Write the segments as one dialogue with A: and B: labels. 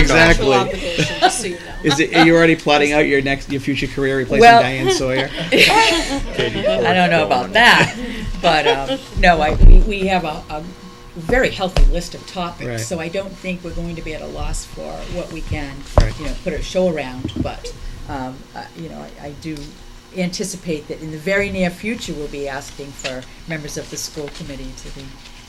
A: Exactly.
B: contractual obligation, just so you know.
A: Is it, are you already plotting out your next, your future career replacing
C: Well-
A: Diane Sawyer?
C: I don't know about that, but, um, no, I, we, we have a, a very healthy list of
A: Right.
C: topics, so I don't think we're going to be at a loss for what we can,
A: Right.
C: you know, put a show around, but, um, uh, you know, I, I do anticipate that in the very near future, we'll be asking for members of the school committee to be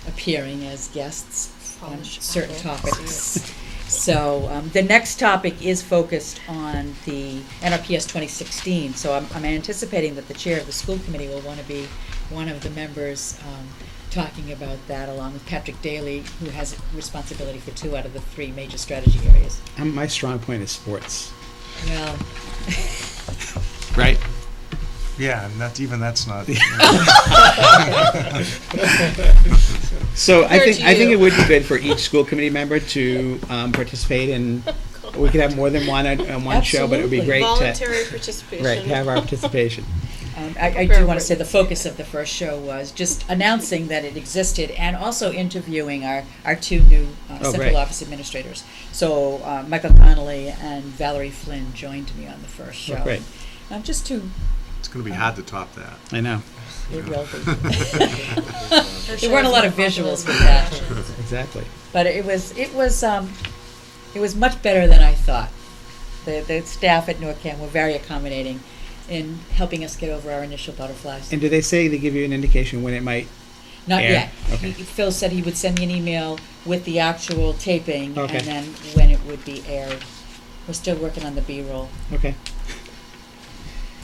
C: appearing as guests on
B: Polish
C: Um, certain
B: apple.
C: topics. So, um, the next topic is focused on the NRPS twenty sixteen, so I'm, I'm anticipating that the chair of the school committee will wanna be one of the members, um, talking about that along with Patrick Daly, who has responsibility for two out of the three major strategy areas.
A: Um, My strong point is sports,
C: Well,
A: right?
D: Yeah, and that's, even that's not.
A: So I
B: Fair
A: think,
B: to
A: I think
B: you.
A: it would be good for each school committee member to um, participate in, we could have more than one, on on one show, but it would be great
C: Absolutely.
A: to,
B: Voluntary participation.
A: right, have our participation.
C: Um, I, I do
B: Very
C: want to say the
B: written.
C: focus of the first show was just announcing that it existed and also interviewing our, our two new uh,
A: Oh,
C: central
A: great.
C: office administrators. So uh, Michael Connolly and Valerie Flynn joined me on the first
A: Oh,
C: show.
A: great.
C: I'm just too,
D: It's going to be hard to top that.
A: I know,
C: it
D: Yeah.
C: will be. There weren't a lot of visuals with that.
A: exactly.
C: But it was, it was, um, it was much better than I thought. The, the staff at NORCAM were very accommodating in helping us get over our initial butterflies.
A: And do they say they give you an indication when it might?
C: Not
A: Air?
C: yet.
A: Okay.
C: He- Phil said he would send me an email with the actual taping and
A: Okay.
C: then when it would be aired. We're still working on the B-roll.
A: Okay.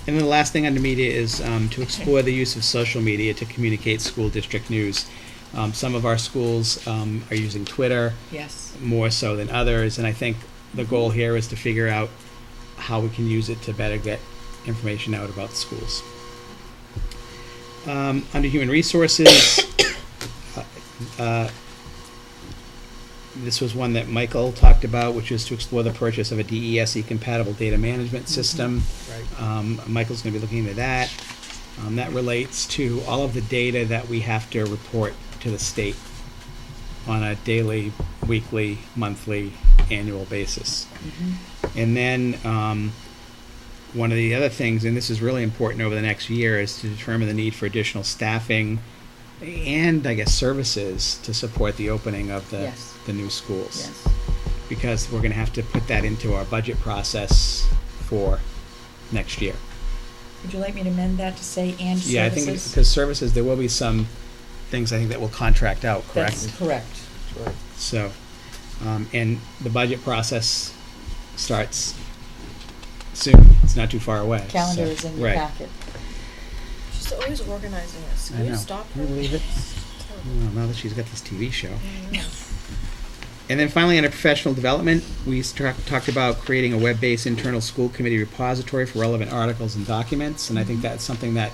A: And then the last thing under media is um, to explore the use of social media to communicate school district news. Um, some of our schools um, are using Twitter
C: Yes.
A: more so than others, and I think the goal here is to figure out how we can use it to better get information out about schools. Um, under human resources, uh, uh, this was one that Michael talked about, which is to explore the purchase of a DESE E compatible data management system. Um, Michael's going to be looking into that. Um, that relates to all of the data that we have to report to the state on a daily, weekly, monthly, annual basis.
C: Mm-hmm.
A: And then um, one of the other things, and this is really important over the next year, is to determine the need for additional staffing and, I guess, services to support the opening of the,
C: Yes.
A: the new schools
C: Yes.
A: because we're going to have to put that into our budget process for next year.
C: Would you like me to amend that to say and services?
A: Yeah, I think because services, there will be some things I think that will contract out, correct?
C: That's correct.
A: So, um, and the budget process starts soon. It's not too far away. so-
C: Calendar is in your
A: right.
C: packet.
E: She's always organizing us.
A: I
E: Can
A: know.
E: you stop
A: Can
E: her?
A: you believe it?
E: Terrible.
A: Well, now that she's got this TV show.
E: I know.
A: And then finally, under professional development, we struck- talked about creating a web-based internal school committee repository for relevant articles and documents, and I think that's something that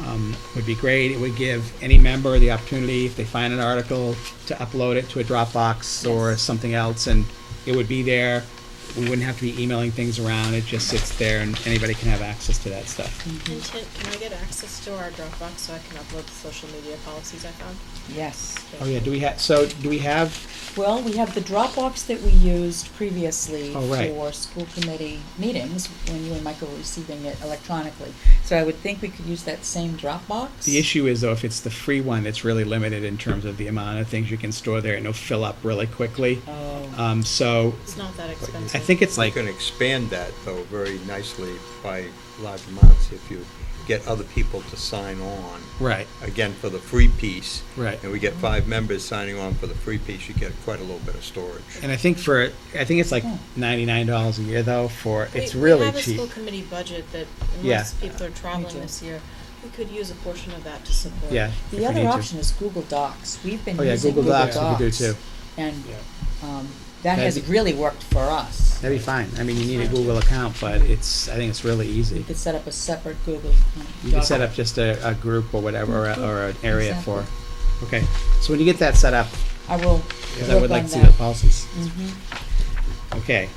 A: um, would be great. It would give any member the opportunity, if they find an article, to upload it to a Dropbox or
C: Yes.
A: something else, and it would be there. We wouldn't have to be emailing things around. It just sits there, and anybody can have access to that stuff.
E: And can, can I get access to our Dropbox so I can upload the social media policies I found?
C: Yes.
A: Oh yeah, do we have? So do we have?
C: Well, we have the Dropbox that we used previously
A: Oh, right.
C: for school committee meetings when you and Michael were receiving it electronically. So I would think we could use that same Dropbox.
A: The issue is though, if it's the free one, it's really limited in terms of the amount of things you can store there, and it'll fill up really quickly.
C: Oh,
A: Um, so
E: It's not that expensive.
A: I think it's
F: You
A: like,
F: can expand that, though, very nicely by large amounts if you get other people to sign on.
A: right,
F: Again, for the free piece.
A: Right.
F: And we get five members signing on for the free piece, you get quite a little bit of storage.
A: and I think for, I think it's like
C: Hmm.
A: ninety-nine dollars a year though for,
E: We-
A: it's really
E: We have a school
A: cheap.
E: committee budget that
A: Yeah.
E: unless people are
C: too.
E: traveling this year, we could use a portion of that to support.
A: Yeah. if we
C: The other
A: need to.
C: option is Google Docs. We've been
A: Oh yeah,
C: using
A: Google Docs we could do
C: Docs,
A: too.
C: And um, that
A: That'd
C: has
A: be-
C: really worked for us.
A: That'd be fine. I mean, you need a Google account, but it's, I think it's really
C: You
A: easy.
C: could set up a separate Google. um,
A: You can set
C: doc.
A: up just a, a group or whatever, or, a- or an area for,
C: Mm-hmm. Exactly.
A: okay. So when you get that set up,
C: I will
A: because I
C: work on
A: would like to see the
C: that.
A: policies.
C: Mhm.
A: Okay.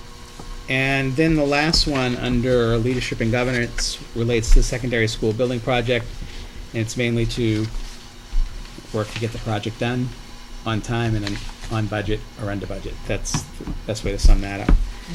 A: And then the last one under leadership and governance relates to the secondary school building project. And it's mainly to work to get the project done on time in an on budget or under budget. That's the best way to sum that up.